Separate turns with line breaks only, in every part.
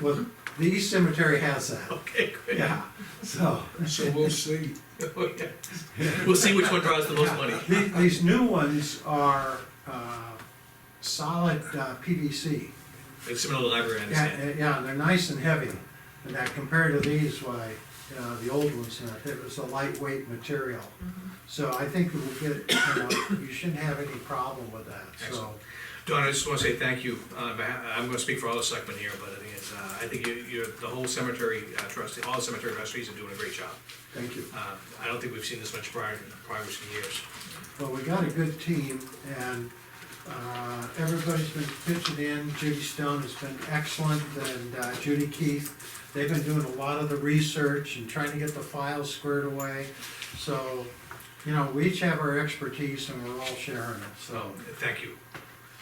Well, the East Cemetery has that,
Okay, great.
yeah, so.
So we'll see.
Oh, yeah. We'll see which one draws the most money.
The- These new ones are uh, solid uh, PVC.
It's similar to the library, I
Yeah,
understand.
uh, yeah, they're nice and heavy, and that compared to these, why, you know, the old ones, you know, it was a lightweight material. So I think we'll get, you know, you shouldn't have any problem with that, so.
Excellent. Don, I just wanna say thank you. Uh, I- I'm gonna speak for all the selectmen here, but I think it's, uh, I think you, you're, the whole cemetery uh, trust, all the cemetery trustees are doing a great job.
Thank you.
Uh, I don't think we've seen this much prior, progress in years.
Well, we got a good team, and uh, everybody's been pitching in, Judy Stone has been excellent, and uh, Judy Keith. They've been doing a lot of the research and trying to get the files squared away, so, you know, we each have our expertise and we're all sharing it,
So,
so.
thank you.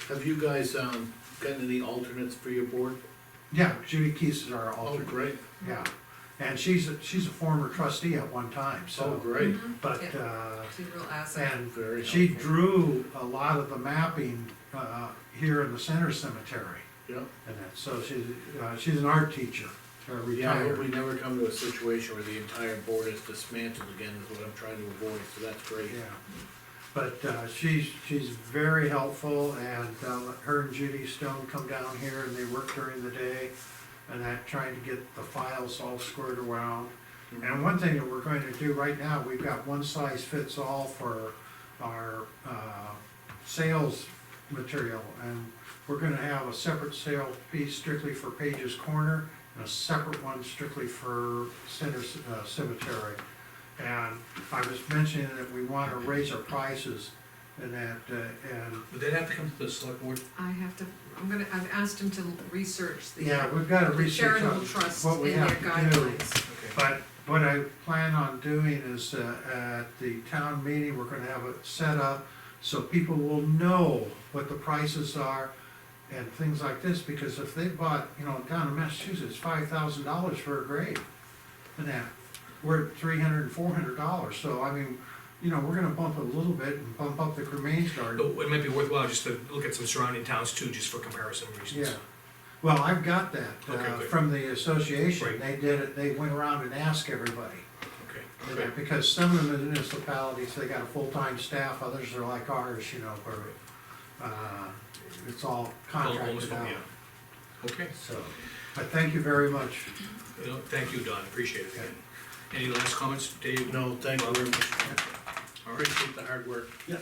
Have you guys, um, gotten any alternates for your board?
Yeah, Judy Keith is our
Oh,
alternate,
great,
yeah, and she's, a- she's a former trustee at one time,
oh,
so,
great,
but,
Yeah.
uh,
She's a real asset.
and
very
She
helpful.
drew a lot of the mapping uh, here in the center cemetery,
Yeah,
and that, so she's, uh, she's an art teacher, uh,
yeah, I hope we
retired.
never come to a situation where the entire board is dismantled again, is what I'm trying to avoid, so that's great.
Yeah, but uh, she's, she's very helpful, and uh, her and Judy Stone come down here and they work during the day, and that, trying to get the files all squared around. And one thing that we're going to do right now, we've got one size fits all for our uh, sales material. And we're gonna have a separate sale piece strictly for Page's Corner and a separate one strictly for Center C- uh, Cemetery. And I was mentioning that we wanna raise our prices and that, uh, and,
Would that have to come to the select board?
I have to, I'm gonna, I've asked him to research the
yeah, we've gotta
the
research
charitable
on
trust
what
and
we
their
have to do.
guidelines.
Okay.
But what I plan on doing is, uh, at the town meeting, we're gonna have it set up so people will know what the prices are and things like this, because if they bought, you know, down in Massachusetts, five thousand dollars for a grave, and that, we're at three hundred and four hundred dollars, so I mean, you know, we're gonna bump it a little bit and bump up the cremains garden.
But It might be worthwhile just to look at some surrounding towns too, just for comparison
Yeah,
reasons.
well, I've got that,
Okay,
uh,
good.
from the association,
Right.
they did it, they went around and asked everybody.
Okay,
you
okay.
know, Because some of the municipalities, they got a full-time staff, others are like ours, you know, where, uh, it's all contracted
Almost,
out.
yeah. Okay.
So, but thank you very much.
You know, Thank you, Don, appreciate it again. Any last comments, Dave?
No, thank you very much,
All right.
appreciate the hard work.
Yeah,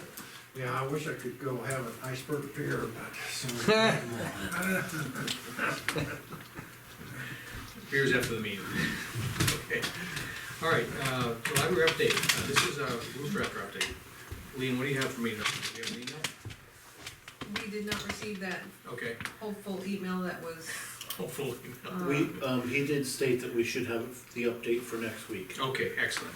I wish I could go have an iceberg beer, but.
Here's after the meeting. Okay. All right, uh, the library update, Uh, this is a roof drafter update. Lean, what do you have for me? Do you have an email?
We did not receive that
Okay,
hopeful email that was,
hopefully.
We, um, he did state that we should have the update for next week.
Okay, excellent.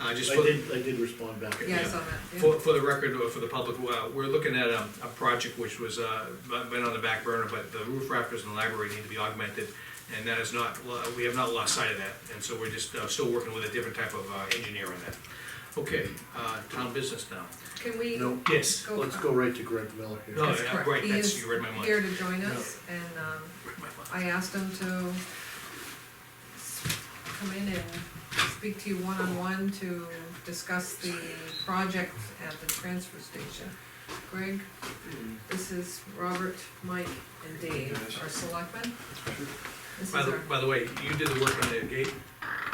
Uh, just
I
for,
did, I did respond back.
yeah, I
Yeah.
saw that, yeah.
for, for the record, or for the public, uh, we're looking at a, a project which was, uh, been on the back burner, but the roof rafters in the library need to be augmented. And that is not, we have not lost sight of that, and so we're just, uh, still working with a different type of, uh, engineer on that. Okay, uh, town business now.
Can we?
No,
Yes.
let's go right to Greg Miller here.
No,
That's
yeah,
correct.
right,
He
that's-
is
you read my mind.
Here to join us, and, um,
Read my mind.
I asked him to s- come in and speak to you one-on-one to discuss the project at the transfer station. Greg, this is Robert, Mike, and Dave, our selectmen. This is
By the,
our,
by the way, you did the work on the gate,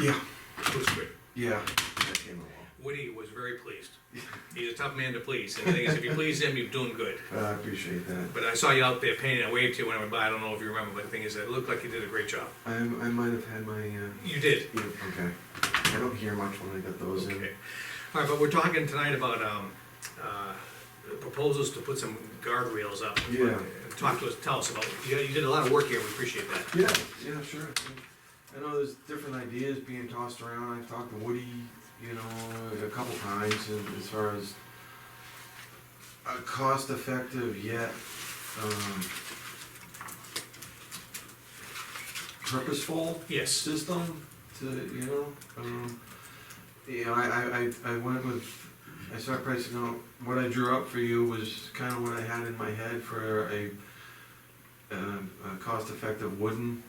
Yeah,
it was great.
yeah, that came along.
Woody was very pleased. He's a tough man to please, and the thing is, if you please him, you're doing good.
Uh, I appreciate that.
But I saw you out there painting, I waved to you when I went by, I don't know if you remember, but the thing is, it looked like you did a great job.
I, I might have had my, uh,
You did,
yeah, okay. I don't hear much when I got those in.
okay. All right, but we're talking tonight about, um, uh, proposals to put some guardrails up.
Yeah.
Talk to us, tell us about, you, you did a lot of work here, we appreciate that.
Yeah, yeah, sure. I know there's different ideas being tossed around. I've talked to Woody, you know, a couple times and as far as a cost effective yet um, purposeful
Yes,
system to, you know, um, you know, I, I, I I went with, I started pricing out, what I drew up for you was kind of what I had in my head for a, um, a cost-effective wooden